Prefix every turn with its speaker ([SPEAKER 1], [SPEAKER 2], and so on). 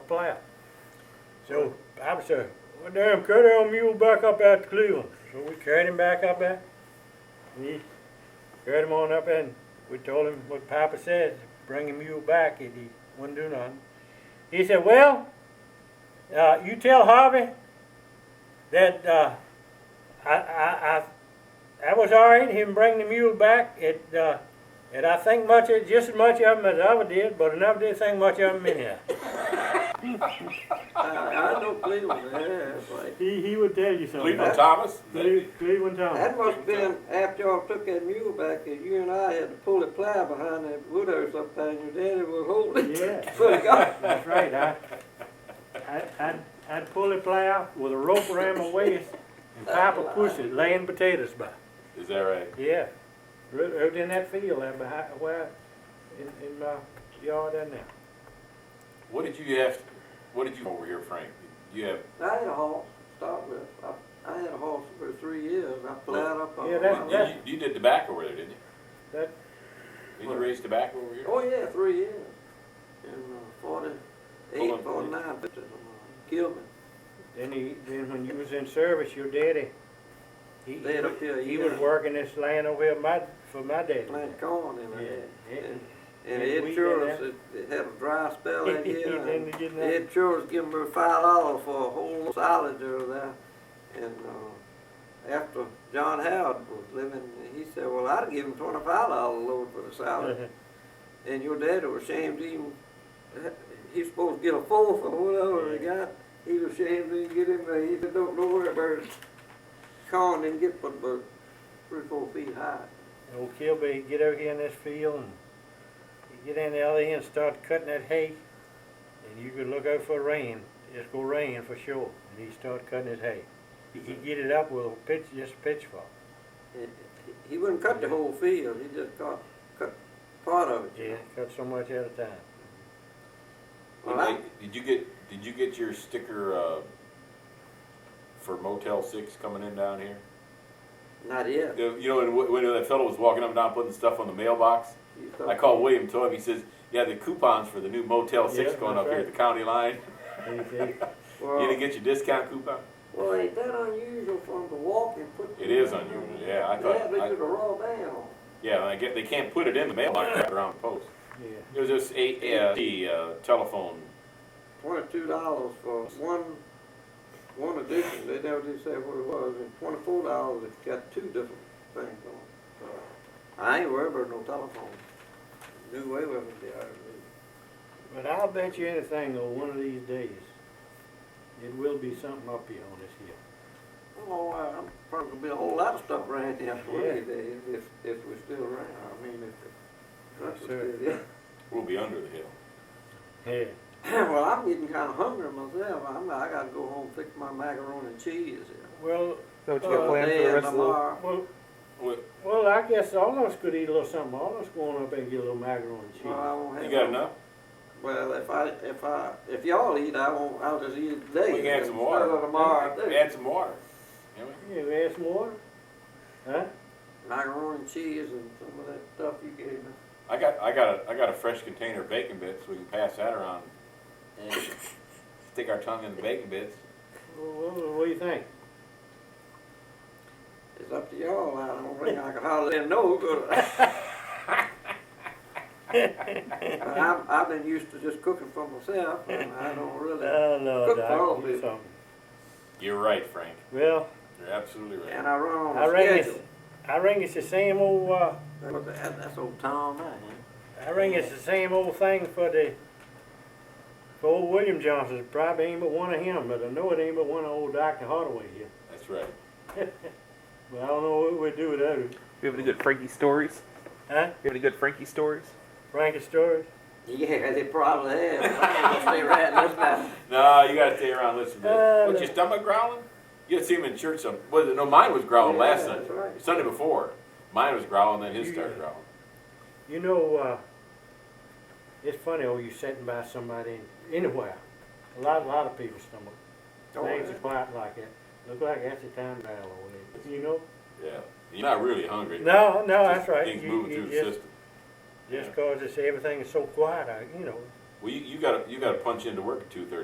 [SPEAKER 1] flat. So I was saying, well, damn, carry our mule back up out to Cleveland. So we carried him back up there. And he carried him on up there and we told him what Papa said, bring the mule back and he wouldn't do nothing. He said, well, uh, you tell Harvey that uh, I, I, I, I was all right, him bring the mule back. It, uh, and I think much, of- just as much of him as I ever did, but I never did think much of him anyhow.
[SPEAKER 2] I know Cleveland, yeah, that's right.
[SPEAKER 1] He, he would tell you something.
[SPEAKER 3] Cleveland Thomas?
[SPEAKER 1] Cle- Cleveland Thomas.
[SPEAKER 2] That must have been after y'all took that mule back, that you and I had to pull a plow behind that wood or something, and your daddy was holding it. uh,
[SPEAKER 1] Yeah.
[SPEAKER 2] So it got-
[SPEAKER 1] That's right. I, I, I'd, I'd pull a plow with a rope around my waist and pipe a push it, laying potatoes by.
[SPEAKER 3] Is that right?
[SPEAKER 1] Yeah. Right, right in that field there behind, where, in, in my yard in there.
[SPEAKER 3] What did you have, what did you, over here, Frank? You have,
[SPEAKER 2] I had a horse, to start with. I, I had a horse for three years. I plowed up on
[SPEAKER 1] Yeah,
[SPEAKER 2] it.
[SPEAKER 1] that- that-
[SPEAKER 3] you, you did tobacco over there, didn't you?
[SPEAKER 1] That-
[SPEAKER 3] Did you raise tobacco over here?
[SPEAKER 2] Oh, yeah, three years. In uh, 48,
[SPEAKER 3] Hold on.
[SPEAKER 2] 49, uh, Gilman.
[SPEAKER 1] Then he, then when you was in service, your daddy, he,
[SPEAKER 2] They had up here a
[SPEAKER 1] he
[SPEAKER 2] year.
[SPEAKER 1] was working this land over here my, for my daddy.
[SPEAKER 2] Plant corn in there.
[SPEAKER 1] Yeah.
[SPEAKER 2] And,
[SPEAKER 1] And
[SPEAKER 2] and
[SPEAKER 1] we
[SPEAKER 2] Ed
[SPEAKER 1] did
[SPEAKER 2] Churls,
[SPEAKER 1] that.
[SPEAKER 2] it, it had a dry spell that
[SPEAKER 1] He
[SPEAKER 2] year.
[SPEAKER 1] didn't
[SPEAKER 2] and
[SPEAKER 1] get nothing.
[SPEAKER 2] Ed Churls gave me five dollars for a whole solid there. And uh, after John Howard was living, he said, well, I'd give him $25 a load for the salad.
[SPEAKER 1] Uh-huh.
[SPEAKER 2] And your daddy was ashamed to even, he's supposed to get a fourth or whatever he got. He was ashamed to even get him, uh, he said, don't, don't worry about it. Corn didn't get but about three, four feet high.
[SPEAKER 1] Old Kilby, he'd get over here in this field and he'd get in the alley and start cutting that hay. And you could look out for rain, it's gonna rain for sure. And he'd start cutting his hay. He'd get it up with a pitch, just a pitchfork.
[SPEAKER 2] He- He wouldn't cut the whole field, he just cut, cut part of it. you
[SPEAKER 1] Yeah,
[SPEAKER 2] know.
[SPEAKER 1] cut so much at a time.
[SPEAKER 2] Well,
[SPEAKER 3] Did
[SPEAKER 2] I-
[SPEAKER 3] they- Did you get, did you get your sticker, uh, for Motel Six coming in down here?
[SPEAKER 2] Not yet.
[SPEAKER 3] You know, and wh- when that fellow was walking up and down putting stuff on the mailbox,
[SPEAKER 2] You
[SPEAKER 3] I
[SPEAKER 2] thought-
[SPEAKER 3] called William, told him, he says, yeah, the coupons for the new Motel Six
[SPEAKER 1] Yeah,
[SPEAKER 3] going
[SPEAKER 1] that's
[SPEAKER 3] up here at
[SPEAKER 1] right.
[SPEAKER 3] the county line.
[SPEAKER 1] He- he-
[SPEAKER 3] You
[SPEAKER 2] Well,
[SPEAKER 3] didn't get your discount coupon?
[SPEAKER 2] well, ain't that unusual for him to walk and put.
[SPEAKER 3] It is unusual, yeah, I
[SPEAKER 2] Yeah,
[SPEAKER 3] thought,
[SPEAKER 2] they
[SPEAKER 3] I,
[SPEAKER 2] did a raw ban on it.
[SPEAKER 3] yeah, and I get, they can't put it in the mailbox right around the post.
[SPEAKER 1] Yeah.
[SPEAKER 3] It was just eight, uh, the, uh, telephone,
[SPEAKER 2] twenty-two dollars for one, one edition, they never did say what it was, and twenty-four dollars if you got two different things on. it. I ain't worried about no telephone, do away with it, the IRB.
[SPEAKER 1] But I'll bet you anything though, one of these days, it will be something up here on this hill.
[SPEAKER 2] Well, uh, I'm probably gonna be a whole lot of stuff around here for
[SPEAKER 1] Yeah.
[SPEAKER 2] any day, if, if we're still around, I mean, if the trucks
[SPEAKER 1] Yes, sir.
[SPEAKER 2] are still there.
[SPEAKER 3] will be under the hill.
[SPEAKER 1] Yeah.
[SPEAKER 2] Well, I'm getting kinda hungry myself, I'm, I gotta go home and fix my macaroni and cheese here.
[SPEAKER 1] Well,
[SPEAKER 4] So what you
[SPEAKER 1] Uh,
[SPEAKER 4] got planned for
[SPEAKER 2] Today
[SPEAKER 4] the
[SPEAKER 2] and
[SPEAKER 4] rest of the?
[SPEAKER 2] tomorrow.
[SPEAKER 1] well,
[SPEAKER 3] Well,
[SPEAKER 1] well, I guess all of us could eat a little something. All of us going up and get a little macaroni and cheese.
[SPEAKER 2] Well, I won't have.
[SPEAKER 3] you got
[SPEAKER 2] no-
[SPEAKER 3] enough?
[SPEAKER 2] Well, if I, if I, if y'all eat, I won't, I'll just eat it today.
[SPEAKER 3] We can have some water.
[SPEAKER 2] Instead of tomorrow, I do.
[SPEAKER 3] Add some water. Yeah, we-
[SPEAKER 1] Yeah, we add some water. Huh?
[SPEAKER 2] Macaroni and cheese and some of that stuff you gave me.
[SPEAKER 3] I got, I got a, I got a fresh container of bacon bits, we can pass that around. and Stick our tongue in the bacon bits.
[SPEAKER 1] What, what, what do you think?
[SPEAKER 2] It's up to y'all, I don't think I can hardly know, but I've, I've been used to just cooking for myself, and I don't really,
[SPEAKER 1] no,
[SPEAKER 2] Cook Doc, for all of you it.
[SPEAKER 1] something.
[SPEAKER 3] You're right, Frank,
[SPEAKER 1] Well,
[SPEAKER 3] you're absolutely right.
[SPEAKER 2] and I run on
[SPEAKER 1] I
[SPEAKER 2] a
[SPEAKER 1] reckon it's,
[SPEAKER 2] schedule.
[SPEAKER 1] I reckon it's the same old, uh,
[SPEAKER 2] But that- That's old Tom, man.
[SPEAKER 1] I reckon it's the same old thing for the, for old William Johnson. It Probably ain't but one of him, but I know it ain't but one of old Dr. Hardaway here.
[SPEAKER 3] That's right.
[SPEAKER 1] But I don't know what we'd do without him.
[SPEAKER 4] You have any good Frankie stories?
[SPEAKER 1] Huh?
[SPEAKER 4] You have any good Frankie stories?
[SPEAKER 1] Frankie Story?
[SPEAKER 2] Yeah, they probably have. I'm gonna stay right in this now.
[SPEAKER 3] No, you gotta stay around, and listen to
[SPEAKER 1] Uh,
[SPEAKER 3] this. What's
[SPEAKER 1] no.
[SPEAKER 3] your stomach growling? You gotta see him in church some, well, no, mine was growling
[SPEAKER 2] Yeah,
[SPEAKER 3] last
[SPEAKER 2] that's
[SPEAKER 3] Sunday,
[SPEAKER 2] right.
[SPEAKER 3] Sunday before. Mine was growling, then his
[SPEAKER 1] You-
[SPEAKER 3] started growling.
[SPEAKER 1] You know, uh, it's funny, oh, you sitting by somebody anywhere. A lot, a lot of people stumble.
[SPEAKER 2] Oh,
[SPEAKER 1] Things
[SPEAKER 2] yeah.
[SPEAKER 1] are quiet like that. Look like that's the time dial on it, you know?
[SPEAKER 3] Yeah, you're not really hungry.
[SPEAKER 1] No, no,
[SPEAKER 3] Just
[SPEAKER 1] Oh, that's right.
[SPEAKER 3] Things
[SPEAKER 1] You-
[SPEAKER 3] moving
[SPEAKER 1] you
[SPEAKER 3] through the
[SPEAKER 1] just-
[SPEAKER 3] system.
[SPEAKER 1] Just cause it's, everything is so quiet, I, you know,
[SPEAKER 3] Well, you, you gotta, you gotta punch into work at two thirty.